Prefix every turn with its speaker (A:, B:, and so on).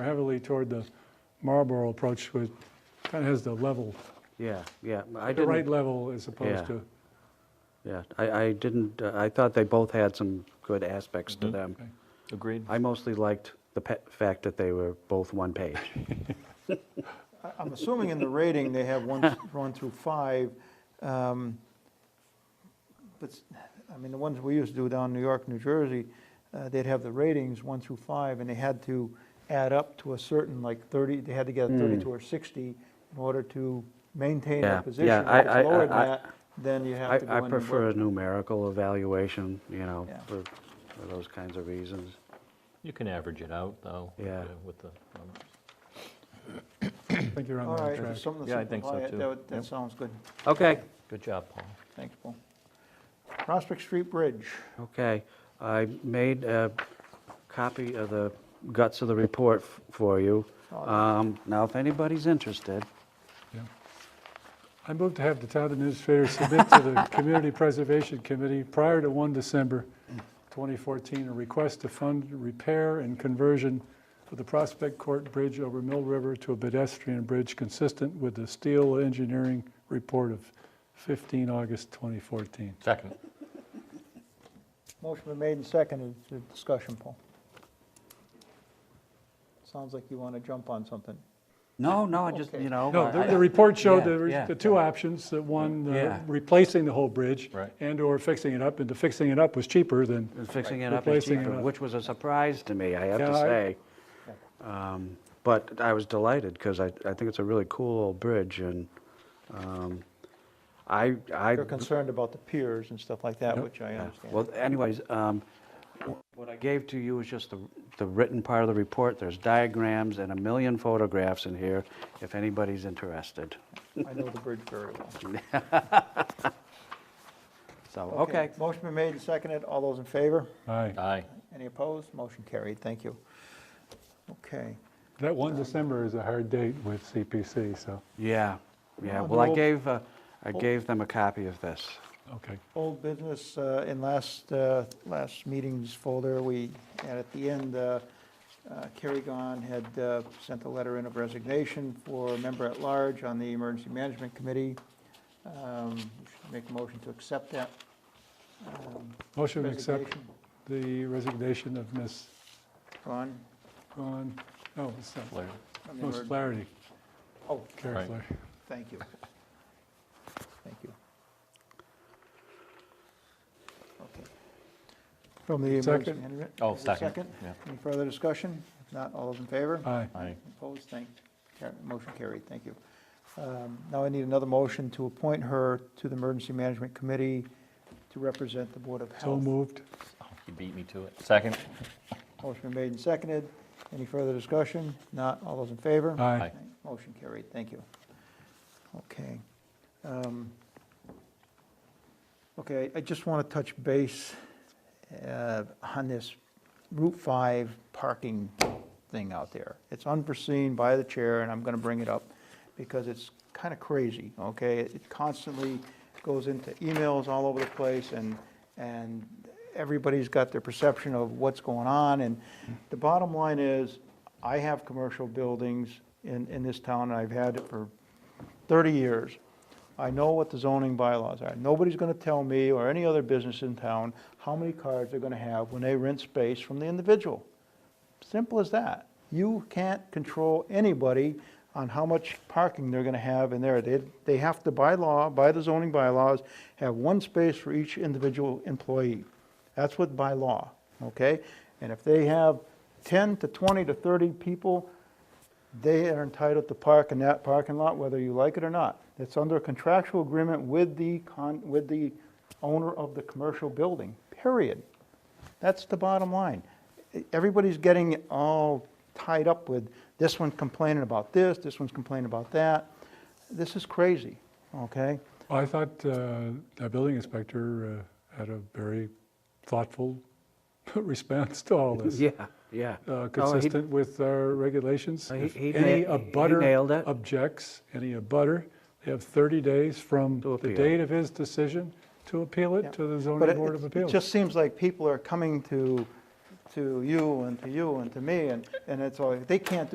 A: heavily toward the Marlboro approach, which kind of has the level,
B: Yeah, yeah, I
A: the right
B: didn't,
A: level as opposed
B: Yeah.
A: to,
B: yeah, I, I didn't, uh, I thought they both had some good aspects
C: Mm-hmm.
B: to them.
A: okay.
D: Agreed.
B: I mostly liked the pe- fact that they were both one page.
C: I- I'm assuming in the rating, they have one, one through five. um, But, s- I mean, the ones we used to do down in New York, New Jersey, uh, they'd have the ratings, one through five, and they had to add up to a certain, like 30, they had to get a 32 or 60 in order to maintain
B: Hmm. Yeah,
C: a position.
B: yeah,
C: If
B: I-
C: it's
B: I-
C: lower than
B: I-
C: that, then you
B: I,
C: have to go
B: I
C: in and work.
B: prefer a numerical evaluation, you know,
C: Yeah.
B: for, for those kinds of reasons.
D: You can average it out, though. with
B: Yeah.
D: the- With the numbers.
A: I think you're
C: All
A: on the right
C: right,
A: track.
C: there's something to
D: Yeah, I think so,
C: simplify it.
D: too.
C: That would- That
D: Yep.
C: sounds good.
B: Okay,
D: Good job, Paul.
C: Thanks, Paul. Prospect Street Bridge.
B: okay. I made a copy of the guts of the report f- for you.
C: Oh,
B: Um, Now, if anybody's interested,
A: Yeah. I move to have the town administrator submit to the Community Preservation Committee prior to 1 December 2014, a request to fund repair and conversion of the Prospect Court Bridge over Mill River to a pedestrian bridge consistent with the steel engineering report of 15 August 2014.
D: Second.
C: Motion been made and seconded. Is there Discussion, Paul. Sounds like you want to jump on something.
B: no, no, I just,
C: Okay.
B: you know.
A: No,
B: I-
A: the,
B: I-
A: the report showed
B: yeah,
A: there was
B: yeah,
A: the two options, that one, uh,
B: Yeah.
A: replacing the whole bridge
D: Right.
A: and/or fixing it up, and the fixing it up was cheaper than
B: And Fixing it up is
A: Replacing it
B: cheaper,
A: up.
B: which was a surprise to me, I have to
A: Yeah, I-
B: say. Um, But I was delighted, because I, I think it's a really cool old bridge, and um, I, I.
C: You're concerned about the piers and stuff like that, which I
B: Yeah.
C: understand.
B: Well, anyways, um, wh- what I gave to you is just the, the written part of the report. There's diagrams and a million photographs in here, if anybody's interested.
C: I know the bridge very well.
B: So, okay,
C: Motion been made and seconded. All those in favor?
A: Aye.
D: Aye.
C: Any opposed? Motion carried. Thank you. Okay.
A: That 1 December is a hard date with CPC, so,
B: yeah, yeah.
C: Oh,
B: Well, I
C: no.
B: gave, uh, I gave them a copy of this.
A: okay.
C: Old business, uh, in last, uh, last meeting's folder, we, and at the end, uh, uh, Kerry Gahn had uh, sent a letter in of resignation for a member-at-large on the Emergency Management Committee. Um, we should Make a motion to accept that. um,
A: Motion to accept
C: resignation.
A: the resignation of Ms.
C: Gahn.
A: Ron, no, it's not,
D: Larry.
C: from the
A: Ms.
C: emerg-
A: Flaherty,
C: Oh,
A: Carrie
D: Right.
A: Flaherty.
C: thank you. Thank you. Okay. From the Emergency
A: Second.
C: Management.
D: Oh,
C: is it
D: second. Yeah.
C: Any further discussion? If not, all those in favor?
A: Aye.
D: Aye.
C: Opposed, thank, car- motion carried, thank you. Um, Now I need another motion to appoint her to the Emergency Management Committee to represent the Board of
A: So
C: Health.
A: moved.
D: You beat me to it. Second.
C: Motion been made and seconded. Any further discussion? Not, all those in favor?
A: Aye.
D: Aye.
C: Motion carried, thank you. Okay. Um, Okay, I just want to touch base uh, on this Route 5 parking thing out there. It's unforeseen by the chair, and I'm going to bring it up because it's kind of crazy, okay? It constantly goes into emails all over the place, and, and everybody's got their perception of what's going on. And the bottom line is, I have commercial buildings in, in this town, and I've had it for 30 years. I know what the zoning bylaws are. Nobody's going to tell me or any other business in town how many cars they're going to have when they rent space from the individual. Simple as that. You can't control anybody on how much parking they're going to have in there. They, they have to, by law, by the zoning bylaws, have one space for each individual employee. That's what by law, okay? And if they have 10 to 20 to 30 people, they are entitled to park in that parking lot, whether you like it or not. It's under a contractual agreement with the con, with the owner of the commercial building, period. That's the bottom line. Everybody's getting all tied up with this one complaining about this, this one's complaining about that. This is crazy, okay?
A: Well, I thought uh, the building inspector uh, had a very thoughtful response to all this.
B: Yeah, yeah.
A: uh,
B: No, Oh, he-
A: consistent with our regulations.
B: Uh, he-
A: If Any
B: he na- he nailed
A: abutter
B: it.
A: objects, any abutter, they have 30 days from
B: To
A: the
B: appeal.
A: date of his decision to appeal
C: Yeah.
A: it to the
C: But
A: zoning
C: it-
A: board of
C: it-
A: appeals.
C: It just seems like people are coming to, to you and to you and to me, and, and it's all, they can't do